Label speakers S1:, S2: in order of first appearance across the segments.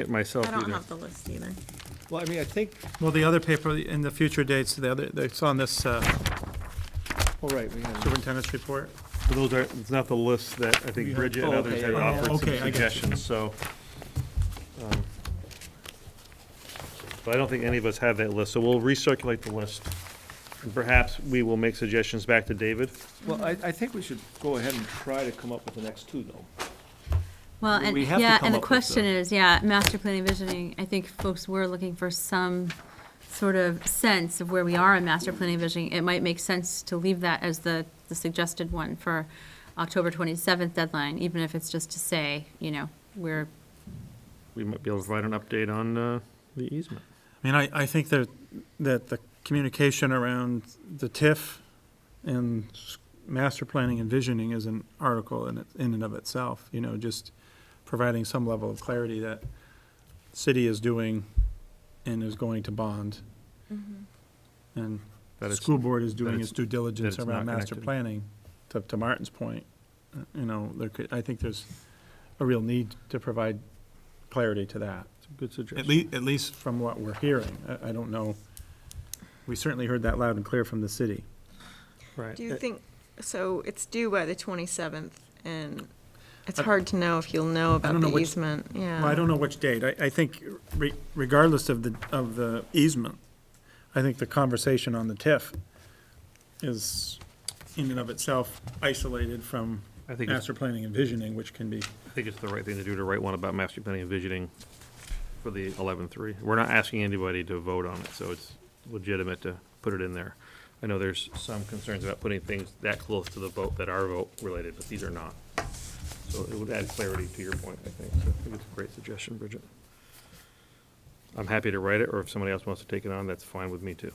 S1: it myself
S2: I don't
S1: either.
S2: have the list either.
S3: Well, I mean, I think,
S4: Well, the other paper in the future dates, the other, it's on this uh,
S3: all Oh, right, we have,
S4: superintendent's report.
S1: But Those are, it's not the list that I think
S4: You have-
S1: Bridget and
S3: oh,
S1: others
S3: okay,
S1: had
S3: yeah, yeah,
S1: offered some
S4: okay, I got you.
S1: suggestions, so. um, But I don't think any of us have that list, so we'll recirculate the list. And perhaps we will make suggestions back to David.
S3: well, I, I think we should go ahead and try to come up with the next two, though.
S5: Well,
S3: We-
S5: and,
S3: we have to
S5: yeah,
S3: come
S5: and the
S3: up with
S5: question
S3: the-
S5: is, yeah, master planning visioning, I think folks were looking for some sort of sense of where we are in master planning visioning. It might make sense to leave that as the, the suggested one for October twenty-seventh deadline, even if it's just to say, you know, we're,
S1: We might be able to provide an update on uh, the easement.
S4: I mean, I, I think that, that the communication around the TIF and s- master planning and visioning is an article in, it- in and of itself, you know, just providing some level of clarity that city is doing and is going to bond.
S2: Mm-hmm.
S4: And
S1: That
S4: the
S1: it's-
S4: school board is doing
S1: it's-
S4: its due diligence
S1: that it's
S4: around
S1: not
S4: master
S1: connected.
S4: planning, to, to Martin's point. uh, You know, there could, I think there's a real need to provide clarity to that.
S1: It's a Good
S4: At
S1: suggestion.
S4: least, at least from what we're hearing. I, I don't know. We certainly heard that loud and clear from the city.
S1: Right.
S4: Uh,
S2: Do you think, so it's due by the 27th, and it's
S4: I-
S2: hard to know if you'll know about
S4: don't know
S2: the
S4: which-
S2: easement, yeah.
S4: Well, I don't know which date. I, I think re- regardless of the, of the easement, I think the conversation on the TIF is in and of itself isolated from
S1: I think, it's-
S4: master planning and visioning, which can be
S1: I think it's the right thing to do to write one about master planning and visioning for the 11-3. We're not asking anybody to vote on it, so it's legitimate to put it in there. I know there's some concerns about putting things that close to the vote that are vote related, but these are not. So it would add clarity to your point, I think. So I think it's a great suggestion, Bridget. I'm happy to write it, or if somebody else wants to take it on, that's fine with me too.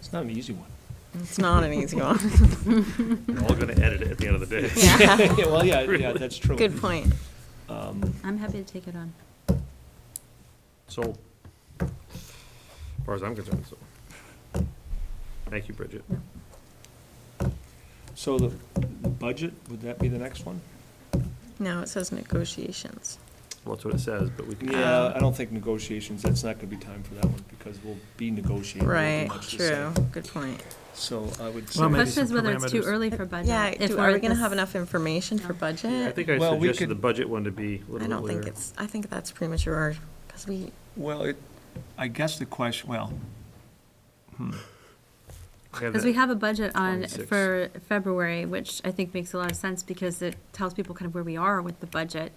S3: It's not an easy one.
S2: It's not an easy one.
S1: We're all going to edit it at the end of the day.
S5: yeah,
S3: Yeah, well, yeah, yeah, that's true.
S2: Good point.
S5: I'm happy to take it on.
S1: Sold. As far as I'm concerned, sold. Thank you, Bridget.
S3: So the the budget, would that be the next one?
S2: No, it says negotiations.
S1: Well, that's what it says, but we can.
S3: Yeah, Uh, I don't think negotiations, that's not gonna be time for that one, because we'll be negotiating. We'll be
S2: Right,
S3: much the
S2: true,
S3: same.
S2: good point.
S3: So I
S4: Well,
S5: The
S3: would
S4: maybe
S3: say,
S5: question is
S4: some
S5: whether it's too
S4: parameters.
S5: early for budget.
S2: Yeah,
S5: if
S2: do-
S5: we're
S2: are we
S5: at
S2: gonna
S5: this-
S2: have enough information for budget?
S1: I think I
S3: Well, we
S1: suggested the
S3: could-
S1: budget one to be a
S2: Uh, I
S1: little
S2: don't
S1: bit
S2: think
S1: later.
S2: it's, I think that's premature, because we,
S3: well, it, I guess the question, well,
S1: We have
S5: Because
S1: that-
S5: we have a budget on,
S1: 26.
S5: for February, which I think makes a lot of sense because it tells people kind of where we are with the budget,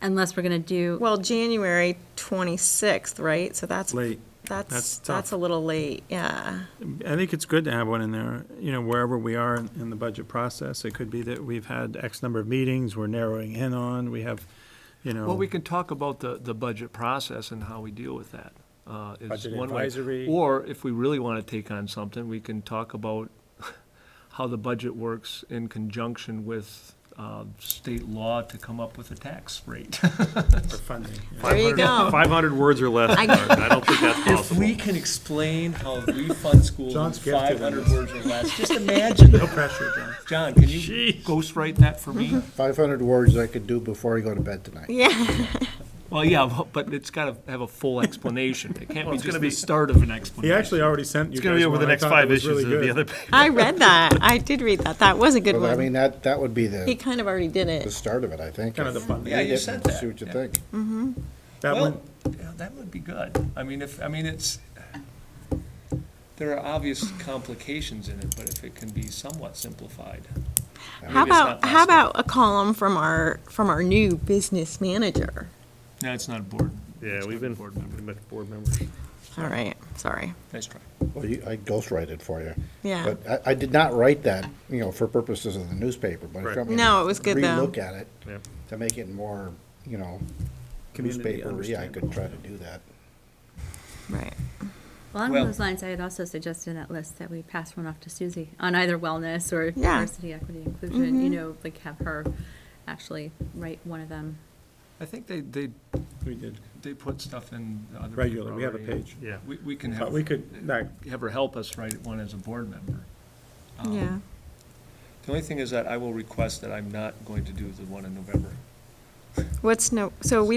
S5: unless we're gonna do,
S2: well, January 26th, right? So that's,
S4: late.
S2: that's,
S4: That's
S2: that's a
S4: tough.
S2: little late, yeah.
S4: I think it's good to have one in there, you know, wherever we are in, in the budget process. It could be that we've had X number of meetings, we're narrowing in on, we have, you know.
S3: well, we can talk about the, the budget process and how we deal with that. uh, is
S4: Budget
S3: one way.
S4: advisory.
S3: Or if we really wanna take on something, we can talk about how the budget works in conjunction with, uh, state law to come up with a tax rate.
S4: For funding. yeah.
S2: There you go.
S1: 500 words or less,
S2: I-
S1: Mark, and I don't think that's
S3: If
S1: possible.
S3: we can explain how we fund schools in
S4: John's gifted in
S3: 500 words or less, just imagine
S4: No
S3: that.
S4: pressure, John.
S3: John, can you ghostwrite that for me?
S4: Mm-hmm.
S6: 500 words I could do before I go to bed tonight.
S2: Yeah,
S3: Well, yeah, bu- but it's got to have a full explanation. It
S1: Well,
S3: can't be
S1: it's
S3: just
S1: gonna be-
S3: the start of an
S4: He
S3: explanation.
S4: actually already sent you
S1: It's going to be
S4: guys
S1: over the
S4: one. I
S1: next
S4: thought it
S1: five
S4: was
S1: issues
S4: really
S1: of the
S4: good.
S1: other.
S2: I read that. I did read that. That was a good
S6: Well, I mean,
S2: one.
S6: that, that would be
S2: He
S6: the,
S2: kind of already did
S6: the
S2: it.
S6: start of it, I think.
S4: Kind of the fun.
S3: Yeah, you said that.
S6: See what you
S3: Yeah.
S6: think.
S4: That one,
S3: Well, yeah, that would be good. I mean, if, I mean, it's, there are obvious complications in it, but if it can be somewhat simplified.
S2: How
S3: Maybe it's
S2: about
S3: not
S2: how
S3: possible.
S2: about a column from our from our new business manager?
S3: No, it's not a board.
S1: Yeah,
S3: It's
S1: we've
S3: not a
S1: been,
S3: board member.
S1: pretty much board members.
S2: All right, sorry.
S3: Nice try.
S6: Well, you, I ghostwrite for you.
S2: Yeah.
S6: But I, I did not write that, you know, for purposes of the newspaper, but if
S1: Right.
S6: you want me to
S2: No, it was good, though.
S6: Relook at it
S1: Yep.
S6: to make it more, you know,
S4: Community
S6: newspapery, I could
S4: understandable.
S6: try to do that.
S2: Right.
S5: along
S3: Well-
S5: those lines, I had also suggested in that list that we pass one off to Susie on either wellness or
S2: Yeah.
S5: diversity, equity, inclusion, you know, like have her actually write one of them.
S3: I think they, they,
S4: we did
S3: they put stuff in the other.
S4: regularly, we have a
S3: paper already.
S4: page.
S1: Yeah.
S3: We, we can
S4: But
S3: have,
S4: we could, like,
S3: have her help us write one as a board member. Um,
S2: Yeah.
S3: The only thing is that I will request that I'm not going to do the one in November.
S2: What's no, so we don't